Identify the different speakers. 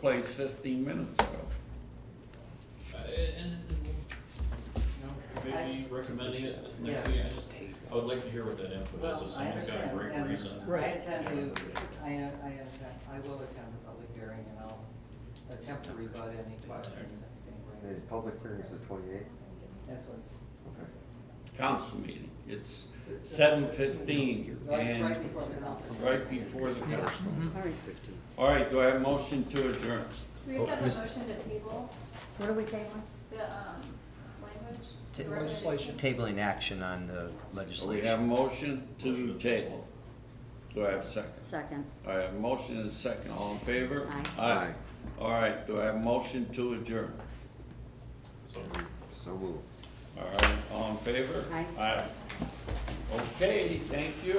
Speaker 1: place fifteen minutes ago.
Speaker 2: Uh, And, you know, maybe recommending it at the next week, I just, I would like to hear what that input is,
Speaker 3: Well,
Speaker 2: if
Speaker 3: I
Speaker 2: someone's got a
Speaker 3: understand,
Speaker 2: great
Speaker 3: and
Speaker 2: reason.
Speaker 3: I
Speaker 4: Right.
Speaker 3: intend to, I, I intend, I will attend the public hearing and I'll attempt to rebut any questions that's being
Speaker 5: The
Speaker 3: raised.
Speaker 5: public hearing's the twenty-eighth?
Speaker 3: That's what.
Speaker 1: Council meeting, it's seven fifteen
Speaker 3: No, it's right
Speaker 1: and
Speaker 3: before the conference.
Speaker 1: right before the council.
Speaker 4: All right,
Speaker 1: All right, do I have a motion to adjourn?
Speaker 6: We have to
Speaker 7: Oh,
Speaker 6: have a motion to table
Speaker 4: what are we tabling?
Speaker 6: the, um, language.
Speaker 7: Ta-
Speaker 6: the recommendation.
Speaker 7: legislation.
Speaker 8: Tabling action on the
Speaker 1: We have a
Speaker 8: legislation.
Speaker 1: motion to the table. Do I have a second?
Speaker 4: Second.
Speaker 1: I have a motion and a second, all in favor?
Speaker 4: Aye.
Speaker 1: Aye. All right, do I have a motion to adjourn?
Speaker 2: So we-
Speaker 5: So moved.
Speaker 1: All right, all in favor?
Speaker 4: Aye.
Speaker 1: Aye. Okay, thank you.